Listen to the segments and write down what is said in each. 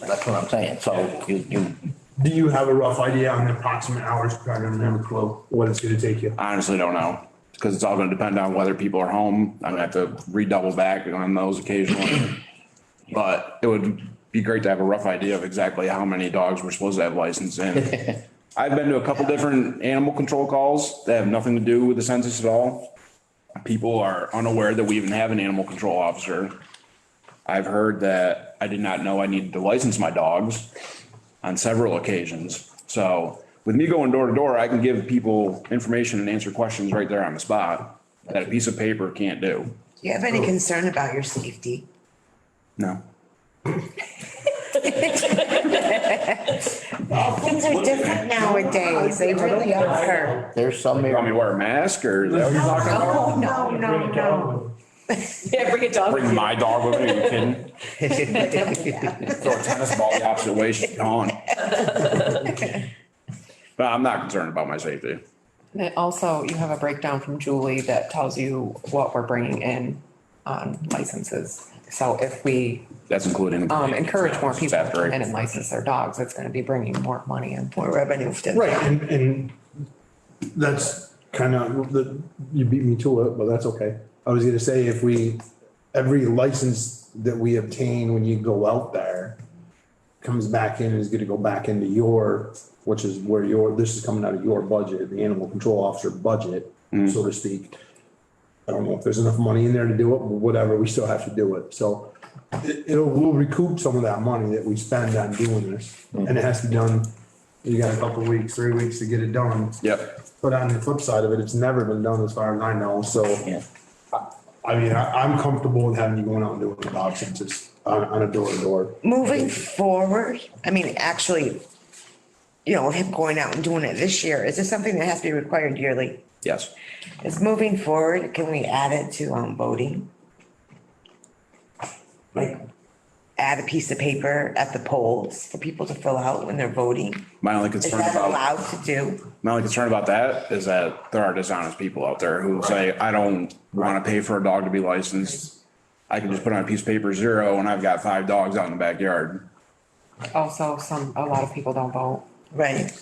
That's what I'm saying. So you, you, Do you have a rough idea on the approximate hours? I don't have a clue what it's gonna take you. I honestly don't know. Cause it's all gonna depend on whether people are home. I'm gonna have to redouble back on those occasionally. But it would be great to have a rough idea of exactly how many dogs we're supposed to have licensed in. I've been to a couple different animal control calls that have nothing to do with the census at all. People are unaware that we even have an animal control officer. I've heard that I did not know I needed to license my dogs on several occasions. So with me going door to door, I can give people information and answer questions right there on the spot that a piece of paper can't do. Do you have any concern about your safety? No. Things are different nowadays. They really are. there's some You want me to area, wear a mask or is that what you're talking about? Oh, No, no, no, no. Yeah, bring a dog. with Bring you. my dog with me, are you kidding? Throw a tennis ball the opposite way, she's gone. But I'm not concerned about my safety. And it also, you have a breakdown from Julie that tells you what we're bringing in on licenses. So if we That's including. um, encourage more people to After come in I- and license their dogs, it's gonna be bringing more money in. More revenue. Right, and, and that's kind of, the, you beat me to it, but that's okay. I was gonna say, if we, every license that we obtain when you go out there comes back in, is gonna go back into your, which is where your, this is coming out of your budget, the animal control officer budget, Mm. so to speak. I don't know if there's enough money in there to do it, but whatever, we still have to do it, so it, it'll, we'll recoup some of that money that we spend on doing this. And it has to be done, you got a couple weeks, three weeks to get it done. Yep. But on the flip side of it, it's never been done as far as I know, so. Yeah. I mean, I, I'm comfortable with having you going out and doing the options, just on, on a door to door. Moving forward, I mean, actually, you know, him going out and doing it this year, is this something that has to be required yearly? Yes. Is moving forward, can we add it to, um, voting? Like, add a piece of paper at the polls for people to fill out when they're voting? My only Is concern that about. allowed to do? My only concern about that is that there are dishonest people out there who say, I don't want to pay for a dog to be licensed. I can just put on a piece of paper zero and I've got five dogs out in the backyard. Also, some, a lot of people don't vote. Right,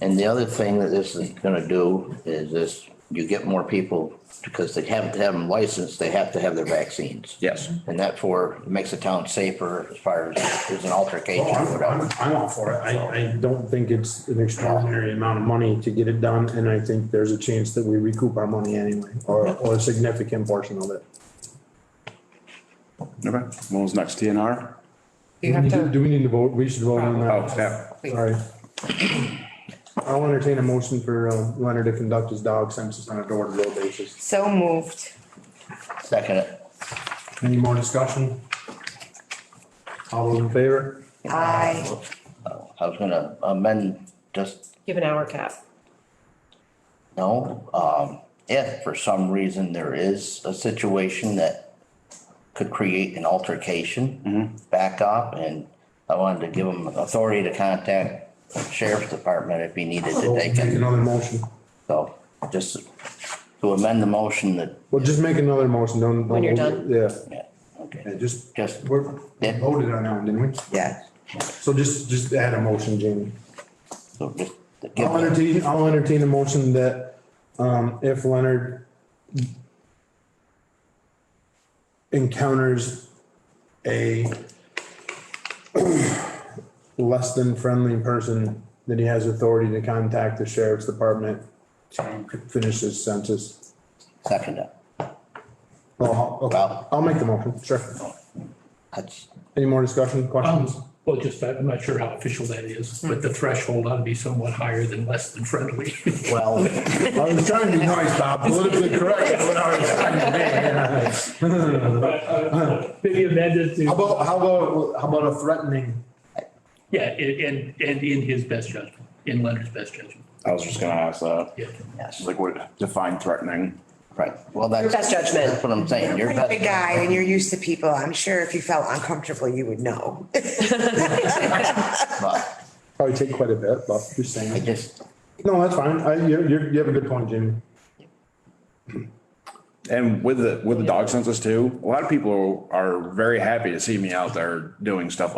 and the other thing that this is gonna do is this, you get more people, because they have to have them licensed, they have to have their vaccines. Yes. And that for, makes the town safer as far as there's an altercation or Oh, I'm, I'm, whatever. I'm all for it. I, I don't think it's an extraordinary amount of money to get it done, and I think there's a chance that we recoup our money anyway, or, or a significant portion of it. Okay. What was next? TNR? You have Do- Do to, we need to vote? We should vote on Oh, that. yeah. Sorry. I'll entertain a motion for uh, Leonard to conduct his dog census on a door to door basis. so moved. Second, it. Any more discussion? All those in favor? Aye. uh, I was gonna amend just Give an hour cap. No, um, if for some reason there is a situation that could create an altercation, back up and I wanted to give them authority to contact the sheriff's department if he needed to Well, take Make it. another motion. So just to amend the motion that, Well, just make another motion. Don't. don't When you're hold it. Yeah. yeah, okay, Yeah, just, Just- we're we Yeah. voted on that one, didn't we? Yeah. So just, just add a motion, Jamie. so just to give I'll them entertain, I'll entertain a motion that, um, if Leonard encounters a less than friendly person, that he has authority to contact the sheriff's department to finish his census. second it. Well, I'll- okay, Wow. I'll make the motion, sure. That's, Any more discussion, Um, questions? well, just, that- I'm not sure how official that is, but the threshold ought to be somewhat higher than less than friendly. well, I was trying to be nice, Bob, politically correct, is what I was trying to be. yeah. Maybe amended How to, about, how about, how about a threatening? yeah, and, and, and in his best judgment, in Leonard's best judgment, I was just gonna ask that. yeah. yes, Like what define threatening? right, well, that's. Your best judgment. That's what I'm saying, your You're a best. big guy and you're used to people. I'm sure if you felt uncomfortable, you would know. but Probably take quite a bit, but just I saying. just, No, that's fine. I, you, you, you have a good point, Jimmy. And with the, with the dog census too, a lot of people are very happy to see me out there doing stuff like